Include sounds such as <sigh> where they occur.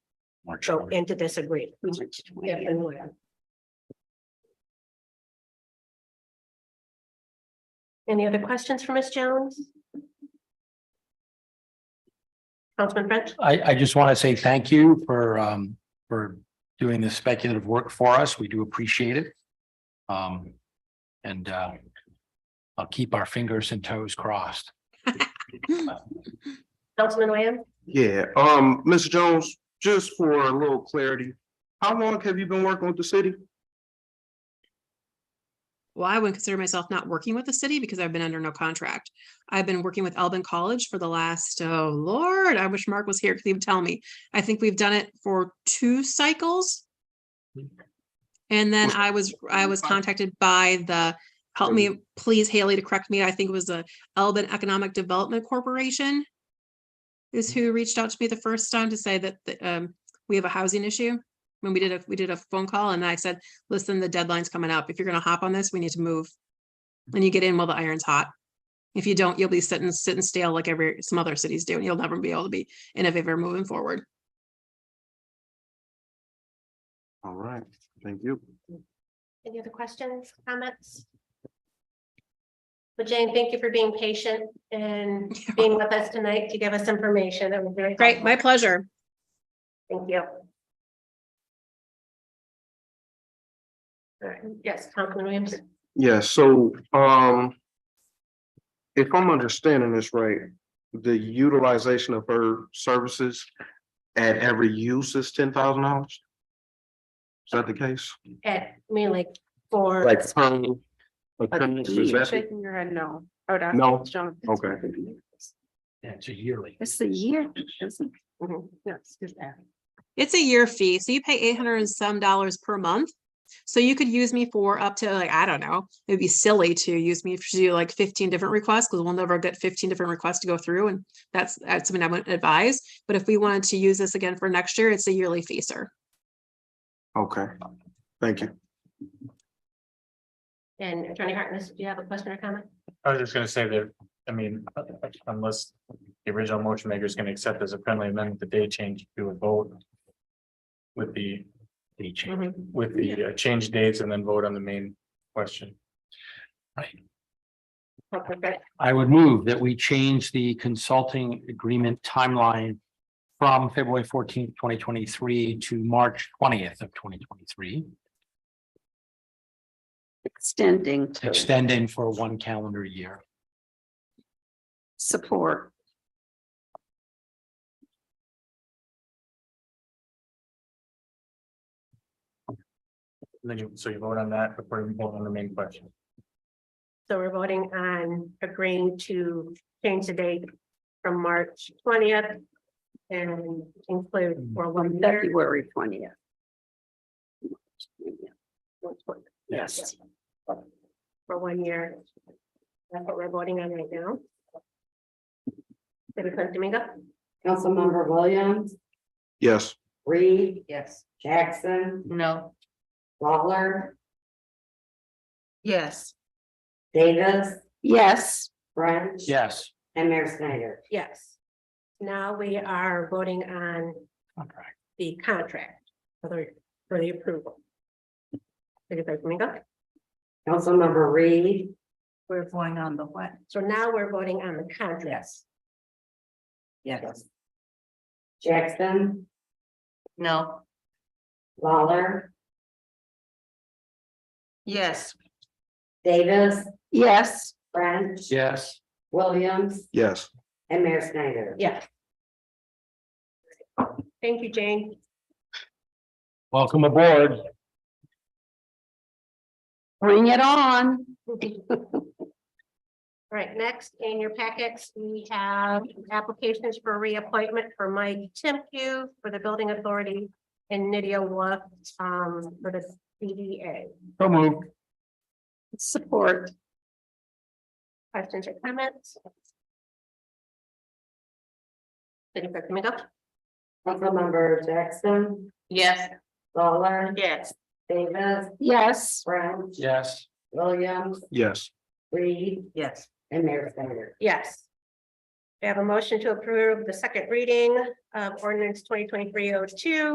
go into this agreement. Definitely. Any other questions for Ms. Jones? Councilman French? I, I just want to say thank you for, um, for doing this speculative work for us. We do appreciate it. Um, and, uh, I'll keep our fingers and toes crossed. Councilman Lamb? Yeah, um, Mr. Jones, just for a little clarity, how long have you been working with the city? Well, I wouldn't consider myself not working with the city because I've been under no contract. I've been working with Elbin College for the last, oh Lord, I wish Mark was here because he would tell me. I think we've done it for two cycles. And then Was- I was, I was contacted by the, help me, please Haley to correct me, I think it was the Elbin Economic Development Corporation is who reached out to me the first time to say that, that, um, we have a housing issue. When we did a, we did a phone call and I said, listen, the deadline's coming up. If you're gonna hop on this, we need to move. And you get in while the iron's hot. If you don't, you'll be sitting, sitting stale like every, some other cities do, and you'll never be able to be innovative or moving forward. All right, thank you. Any other questions, comments? But Jane, thank you for being patient <laughs> and being with us tonight to give us information. That was very. Great, helpful. my pleasure. Thank you. All right, yes, Councilman Williams. Yeah, so, um, if I'm understanding this right, the utilization of her services at every use is ten thousand dollars? Is that the case? At, I mean, like, for. Like, per occurrence, is that- Shaking your head, no. Oh, that's. No? Jonathan. Okay. Yeah, it's a yearly. It's the year, isn't it? Mhm. Yes, Mm-hmm. it's that. It's a year fee, so you pay eight hundred and some dollars per month. So you could use me for up to like, I don't know, it'd be silly to use me to do like fifteen different requests, because we'll never get fifteen different requests to go through, and that's, that's something I wouldn't advise. But if we wanted to use this again for next year, it's a yearly fee, sir. Okay, thank you. And Attorney Hartness, do you have a question or comment? I was just gonna say that, I mean, unless the original motion maker is gonna accept as a friendly amendment, the day change to a vote. With the, They change. Mhm. with the uh, change dates and then vote on the main question. Okay, great. I would move that we change the consulting agreement timeline from February fourteenth, twenty twenty-three to March twentieth of twenty twenty-three, Extending to extending for one calendar year. support. And Then you, so you vote on that before you vote on the main question. So we're voting on agreeing to change the date from March twentieth and include for one year. February twentieth. Yes. For one year. That's what we're voting on right now. Deputy Clerk Domingo? Councilmember Williams, Yes, Reed. Yes. Jackson, No. Lawler, Yes. Davis, Yes. French. Yes. And Mayor Snyder. Yes. Now we are voting on Contract. the contract for the, for the approval. Deputy Clerk Domingo? Councilmember Reed, We're going on the what? So now we're voting on the contract. Yes. Yes. Jackson, No. Lawler, Yes. Davis, Yes. French. Yes. Williams, yes. and Mayor Snyder. Yes. Thank you, Jane. <laughs> Welcome aboard. Bring it on. All right, next in your packets, we have applications for reappointment for Mike Timku for the Building Authority and Nydia Wolf um, for the CDA. So moved. Support. Questions or comments? City Clerk Domingo? Councilmember Jackson, Yes. Lawler, Yes. Davis, Yes. French. Yes. Williams, Yes, Reed, Yes. and Mayor Snyder. Yes. We have a motion to approve the second reading of ordinance twenty twenty-three oh two